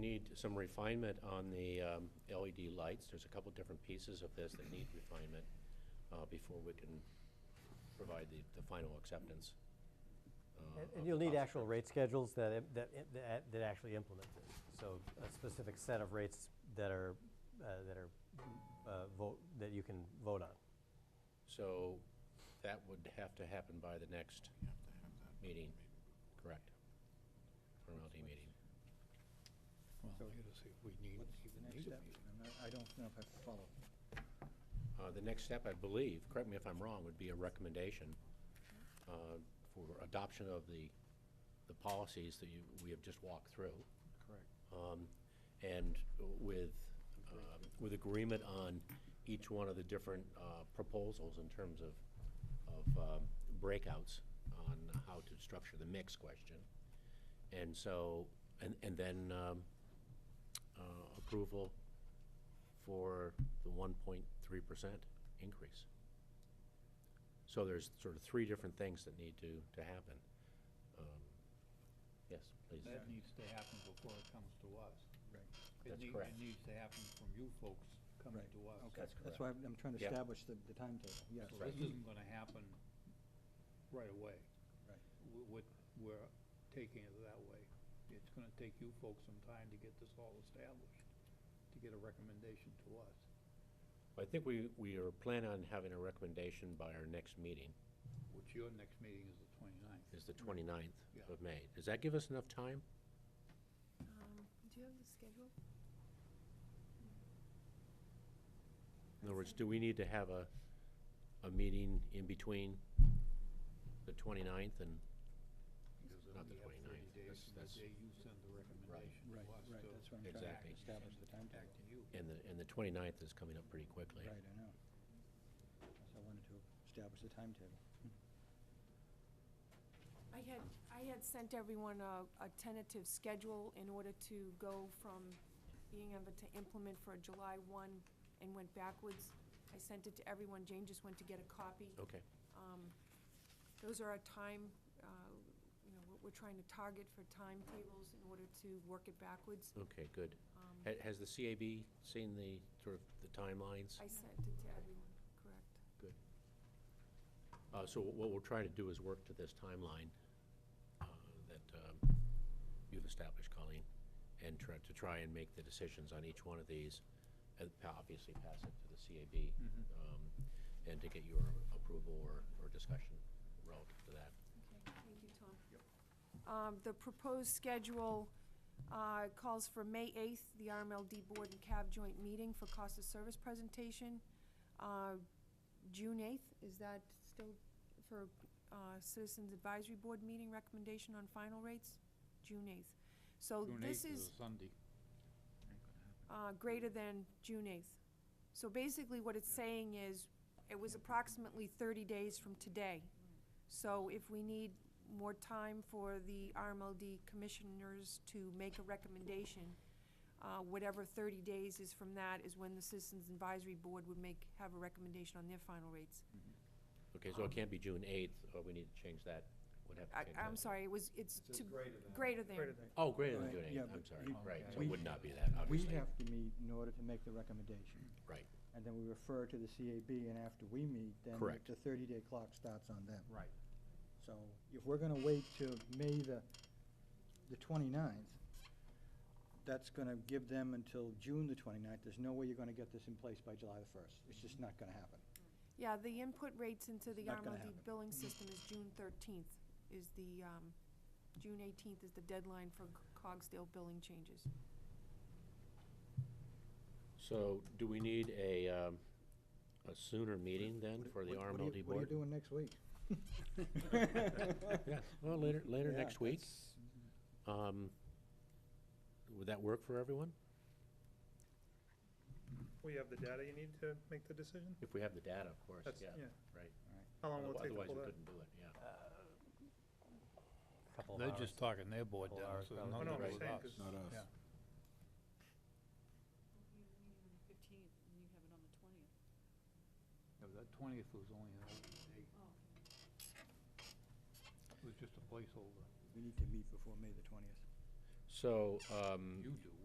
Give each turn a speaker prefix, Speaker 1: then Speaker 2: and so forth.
Speaker 1: need some refinement on the um, LED lights. There's a couple different pieces of this that need refinement uh, before we can provide the, the final acceptance. uh,
Speaker 2: And-
Speaker 1: of
Speaker 2: And
Speaker 1: the
Speaker 2: you'll need
Speaker 1: cost.
Speaker 2: actual rate schedules that, im- that, i- that that actually implement this. So a specific set of rates that are, uh, that are, uh, vote, that you can vote on.
Speaker 1: So that would have to happen by the next meeting, correct? Formality meeting.
Speaker 3: Well, I gotta see if we need, even need a meeting.
Speaker 4: I'm not- I don't know if I follow.
Speaker 1: Uh, The next step, I believe, correct me if I'm wrong, would be a recommendation uh, for adoption of the, the policies that you, we have just walked through.
Speaker 4: Correct.
Speaker 1: um, And with, um, with agreement on each one of the different uh, proposals in terms of, of um, breakouts on how to structure the mix question. And so, and, and then um, uh, approval for the one point three percent increase. So there's sort of three different things that need to, to happen. Um, Yes, please.
Speaker 3: That needs to happen before it comes to us.
Speaker 4: Right.
Speaker 3: It
Speaker 1: That's
Speaker 3: need-
Speaker 1: correct.
Speaker 3: It needs to happen from you folks coming
Speaker 4: Right.
Speaker 3: to us.
Speaker 4: Okay.
Speaker 1: That's
Speaker 4: That's why I'm I'm trying to
Speaker 1: Yeah.
Speaker 4: establish the, the timetable, yes.
Speaker 3: So this isn't gonna happen right away.
Speaker 4: Right.
Speaker 3: W- What, we're taking it that way. It's gonna take you folks some time to get this all established, to get a recommendation to us.
Speaker 1: I think we, we are planning on having a recommendation by our next meeting,
Speaker 3: Which your next meeting is the twenty-ninth.
Speaker 1: is the 29th
Speaker 3: Yeah.
Speaker 1: of May. Does that give us enough time?
Speaker 5: Um, Do you have the schedule?
Speaker 1: In other words, do we need to have a, a meeting in between the 29th and, not the 29th, that's- that's-
Speaker 3: Because we have thirty days from the day you send the recommendation to
Speaker 4: Right,
Speaker 3: us
Speaker 4: right,
Speaker 3: to
Speaker 4: that's what I'm trying
Speaker 1: Exactly.
Speaker 4: to establish the
Speaker 3: back
Speaker 4: timetable.
Speaker 3: to you.
Speaker 1: and the, and the 29th is coming up pretty quickly?
Speaker 4: Right, I know. So I wanted to establish the timetable.
Speaker 5: I had, I had sent everyone a, a tentative schedule in order to go from being able to implement for July one and went backwards. I sent it to everyone, Jane just went to get a copy.
Speaker 1: Okay,
Speaker 5: Um, Those are our time, uh, you know, what we're trying to target for timetables in order to work it backwards.
Speaker 1: okay, good.
Speaker 5: Um,
Speaker 1: Ha- Has the CAB seen the, sort of, the timelines?
Speaker 5: I sent it to everyone, correct.
Speaker 1: Uh, so what we'll try to do is work to this timeline, uh, that, um, you've established, Colleen, and try, to try and make the decisions on each one of these, and pa- obviously pass it to the CAB,
Speaker 4: Mm-hmm.
Speaker 3: Mhm.
Speaker 1: um, and to get your approval or, or discussion relative to that.
Speaker 5: Okay, thank you, Tom. Um, The proposed schedule uh, calls for May 8th, the RMLD Board and CAB joint meeting for cost of service presentation. Uh, June 8th, is that still for uh, Citizens Advisory Board meeting recommendation on final rates? June 8th. So
Speaker 3: June
Speaker 5: Oh, this
Speaker 3: 8th
Speaker 5: is
Speaker 3: a Sunday.
Speaker 5: uh, greater than June 8th. So basically, what it's saying is, it was approximately 30 days from today. So if we need more time for the RMLD commissioners to make a recommendation, uh, whatever 30 days is from that is when the Citizens Advisory Board would make, have a recommendation on their final rates.
Speaker 1: Okay,
Speaker 4: Um,
Speaker 1: so it can't be June eighth, or we need to change that, would have to
Speaker 5: I-
Speaker 1: change that.
Speaker 5: I'm sorry, it was, it's to, greater than.
Speaker 1: Oh, greater than
Speaker 4: Right,
Speaker 1: June
Speaker 4: yeah,
Speaker 1: eighth, I'm
Speaker 4: but
Speaker 1: sorry,
Speaker 4: you-
Speaker 1: right, so
Speaker 3: we-
Speaker 1: it would not be that,
Speaker 4: We
Speaker 1: obviously.
Speaker 4: have to meet in order to make the recommendation.
Speaker 1: Right.
Speaker 4: And then we refer to the CAB, and after we meet, then
Speaker 1: Correct.
Speaker 4: the thirty-day clock starts on them.
Speaker 3: Right.
Speaker 4: So if we're gonna wait till May the, the twenty-ninth, that's gonna give them until June the twenty-ninth. There's no way you're gonna get this in place by July the first. It's just not gonna happen.
Speaker 5: Yeah, the input rates into the
Speaker 4: Not gonna
Speaker 5: RMLD
Speaker 4: happen.
Speaker 5: billing system is June thirteenth, is the, um, June eighteenth is the deadline for C- Cogsdale billing changes.
Speaker 1: So do we need a, um, a sooner meeting then for the
Speaker 4: What- what- what are you-
Speaker 1: RMLD board?
Speaker 4: What are you doing next week?
Speaker 1: Yeah, well, later, later
Speaker 4: Yeah,
Speaker 1: next week. Um, Would that work for everyone?
Speaker 6: Well, you have the data you need to make the decision?
Speaker 1: If we have the data, of course,
Speaker 6: That's,
Speaker 1: yeah.
Speaker 6: yeah.
Speaker 1: Right.
Speaker 6: How long will it take to
Speaker 1: Otherwise, we
Speaker 6: pull that?
Speaker 1: couldn't do it, yeah.
Speaker 2: Couple of
Speaker 3: They're
Speaker 2: hours.
Speaker 3: just talking their board
Speaker 2: Couple
Speaker 3: down,
Speaker 2: hours
Speaker 3: so
Speaker 2: probably.
Speaker 3: nothing
Speaker 6: Oh, no,
Speaker 3: to
Speaker 6: I'm
Speaker 3: do
Speaker 6: just
Speaker 3: with
Speaker 6: saying,
Speaker 3: us.
Speaker 6: 'cause
Speaker 7: Not us.
Speaker 3: Yeah.
Speaker 8: fifteenth, and you have it on the twentieth.
Speaker 3: Yeah, but that twentieth was only an open date. It was just a placeholder.
Speaker 4: We need to meet before May the twentieth.
Speaker 1: So, um,
Speaker 3: You do,